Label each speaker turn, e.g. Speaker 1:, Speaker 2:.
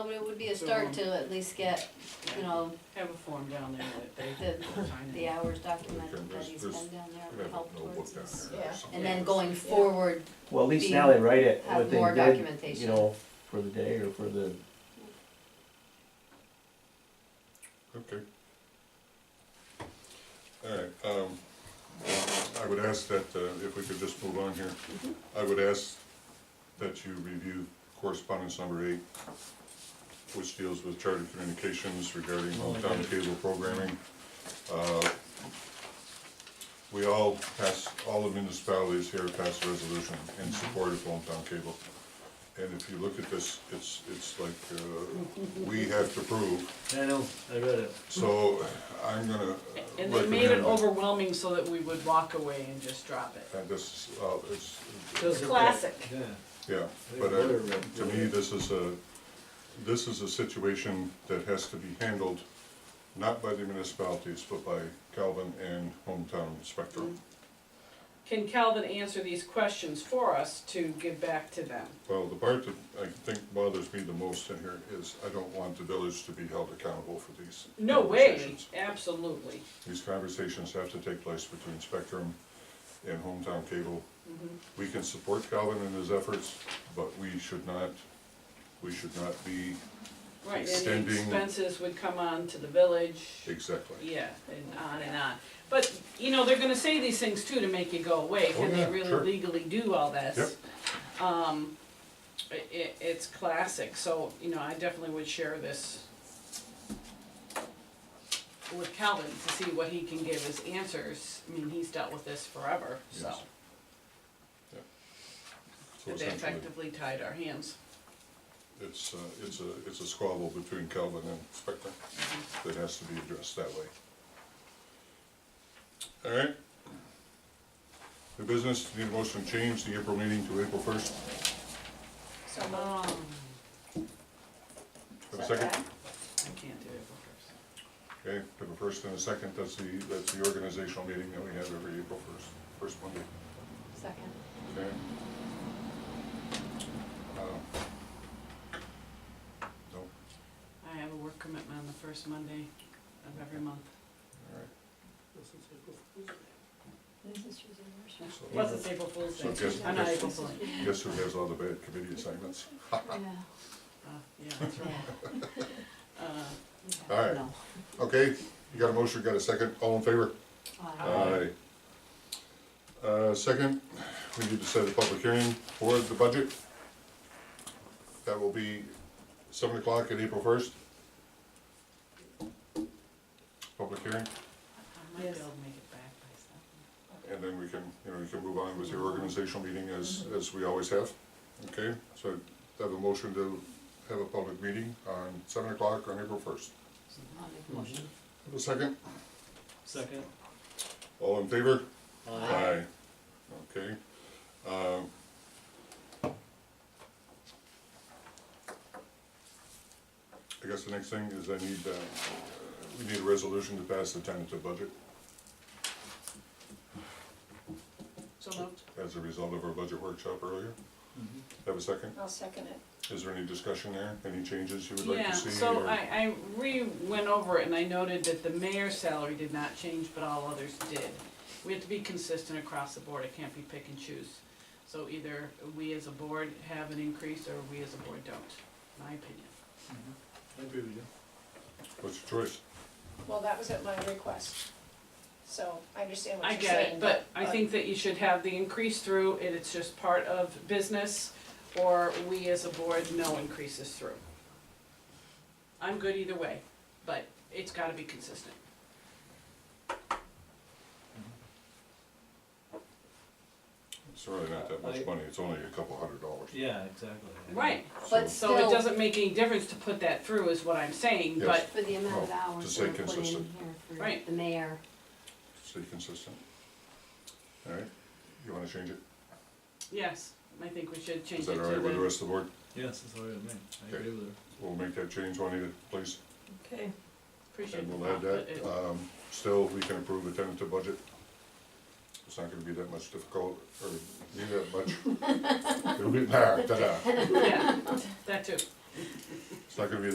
Speaker 1: it would be a start to at least get, you know,
Speaker 2: Have a form down there that they
Speaker 1: The-
Speaker 2: can sign
Speaker 1: the
Speaker 2: in.
Speaker 1: hours documented that
Speaker 3: There's-
Speaker 1: he's
Speaker 3: there's-
Speaker 1: been down
Speaker 3: I
Speaker 1: there,
Speaker 3: have a
Speaker 1: helped towards
Speaker 3: notebook down
Speaker 1: this.
Speaker 3: there
Speaker 4: Yeah.
Speaker 3: or something.
Speaker 1: And then going forward,
Speaker 5: Well, at least
Speaker 1: Be-
Speaker 5: now they write it,
Speaker 1: have
Speaker 5: what they
Speaker 1: more
Speaker 5: did, you
Speaker 1: documentation.
Speaker 5: know, for the day or for the,
Speaker 3: Okay. Alright, um, I would ask that, uh, if we could just move on here, I would ask that you review correspondence number eight, which deals with charter communications regarding hometown cable programming. Uh, We all pass, all the municipalities here pass a resolution in support of hometown cable. And if you look at this, it's, it's like, uh, we have to prove
Speaker 6: I know, I read it.
Speaker 3: so I'm gonna
Speaker 2: And they made it
Speaker 3: recommend, that-
Speaker 2: overwhelming so that we would walk away and just drop it.
Speaker 3: and this, is, uh, it's,
Speaker 6: Doesn't it?
Speaker 4: Classic.
Speaker 6: Yeah.
Speaker 3: yeah, but I, to me, this is a, this is a situation that has to be handled not by the municipalities, but by Calvin and hometown spectrum.
Speaker 2: Mm-hmm. Can Calvin answer these questions for us to give back to them?
Speaker 3: Well, the part that I think bothers me the most in here is I don't want the village to be held accountable for these
Speaker 2: No way,
Speaker 3: conversations.
Speaker 2: absolutely.
Speaker 3: These conversations have to take place between Spectrum and Hometown Cable.
Speaker 2: Mm-hmm.
Speaker 3: We can support Calvin in his efforts, but we should not, we should not be,
Speaker 2: Right, and the
Speaker 3: Extending-
Speaker 2: expenses would come on to the village,
Speaker 3: exactly.
Speaker 2: yeah, and on and on. But, you know, they're gonna say these things too to make you go away,
Speaker 3: Oh,
Speaker 2: can they
Speaker 3: yeah, sure.
Speaker 2: really legally do all this?
Speaker 3: Yep.
Speaker 2: Um, i- i- it's classic, so, you know, I definitely would share this with Calvin to see what he can give as answers, I mean, he's dealt with this forever, so.
Speaker 3: Yes. Yep. So
Speaker 2: That they
Speaker 3: essentially,
Speaker 2: effectively tied our hands.
Speaker 3: it's, uh, it's a, it's a squabble between Calvin and Spectrum
Speaker 2: Mm-hmm.
Speaker 3: that has to be addressed that way. All right. The business, need a motion to change the April meeting to April first,
Speaker 4: So
Speaker 2: Um,
Speaker 4: moved.
Speaker 2: I
Speaker 3: have a second?
Speaker 2: can't do April first.
Speaker 3: Okay, we have a first and a second, that's the, that's the organizational meeting that we have every April first, first Monday,
Speaker 1: second,
Speaker 3: okay? Uh, No, all
Speaker 2: I have a work commitment on the first Monday of every month.
Speaker 3: right,
Speaker 1: this is your worship.
Speaker 3: so
Speaker 2: Plus it's April Fool's
Speaker 3: So
Speaker 2: Day.
Speaker 3: guess-
Speaker 2: I'm not
Speaker 3: guess-
Speaker 2: April Fool. Uh,
Speaker 3: guess who has all the bad committee assignments?
Speaker 1: Yeah,
Speaker 2: Uh, yeah, that's right.
Speaker 1: yeah.
Speaker 2: Uh,
Speaker 3: All right.
Speaker 1: No.
Speaker 3: Okay, you got a motion, got a second, all in favor?
Speaker 1: Uh,
Speaker 2: Aye.
Speaker 3: Aye. Uh, second, we need to set a public hearing for the budget. That will be seven o'clock on April first. Public
Speaker 2: I
Speaker 3: hearing,
Speaker 2: might be able
Speaker 4: Yes.
Speaker 2: to make it back by seven.
Speaker 3: and then we can, you know, you can move on with your organizational meeting as, as we always have. Okay, so have a motion to have a public meeting on seven o'clock on April first.
Speaker 1: I'll make a motion.
Speaker 3: Have a second,
Speaker 6: Second.
Speaker 3: all in favor? Aye.
Speaker 6: Aye.
Speaker 3: Okay. Um, I guess the next thing is I need, uh, we need a resolution to pass the tentative budget
Speaker 2: So moved.
Speaker 3: as a result of our budget workshop earlier.
Speaker 6: Mhm.
Speaker 3: Have a second?
Speaker 4: I'll second it.
Speaker 3: Is there any discussion there? Any changes you would like
Speaker 2: Yeah,
Speaker 3: to see?
Speaker 2: so
Speaker 3: or-
Speaker 2: I, I re-went over it and I noted that the mayor's salary did not change, but all others did. We have to be consistent across the board, it can't be pick and choose. So either we as a board have an increase or we as a board don't, my opinion.
Speaker 6: mm-hmm. I agree with you.
Speaker 3: What's your choice?
Speaker 4: Well, that was at my request. So I understand what
Speaker 2: I
Speaker 4: you're
Speaker 2: get
Speaker 4: saying. uh,
Speaker 2: it, but I think that you should have the increase through, and it's just part of business, or we as a board, no increases through. I'm good either way, but it's gotta be consistent.
Speaker 3: It's really not that much
Speaker 6: I-
Speaker 3: money, it's only a couple hundred dollars.
Speaker 6: Yeah, exactly. I
Speaker 2: Right,
Speaker 3: So
Speaker 1: But
Speaker 2: so it
Speaker 1: still,
Speaker 2: doesn't make any difference to put that through, is what I'm saying, but,
Speaker 1: for the amount of
Speaker 3: Well, to
Speaker 1: hours
Speaker 3: stay
Speaker 1: that are put in here
Speaker 3: consistent.
Speaker 1: for
Speaker 2: Right.
Speaker 1: the mayor,
Speaker 3: Stay consistent. All right, you wanna change it?
Speaker 2: yes, I think we should
Speaker 3: Is
Speaker 2: change it
Speaker 3: that
Speaker 2: to
Speaker 3: all right with the
Speaker 2: the,
Speaker 3: rest of the board?
Speaker 6: Yes, that's all right with me. I agree with her.
Speaker 3: We'll make that change, Juanita, please.
Speaker 4: Okay.
Speaker 2: appreciate
Speaker 3: And
Speaker 2: the
Speaker 3: we'll
Speaker 2: thought,
Speaker 3: add
Speaker 2: but it,
Speaker 3: that, um, still, we can approve the tentative budget. It's not gonna be that much difficult, or be that much. It'll be, nah, ta-da.
Speaker 2: yeah, that too,
Speaker 3: It's not gonna be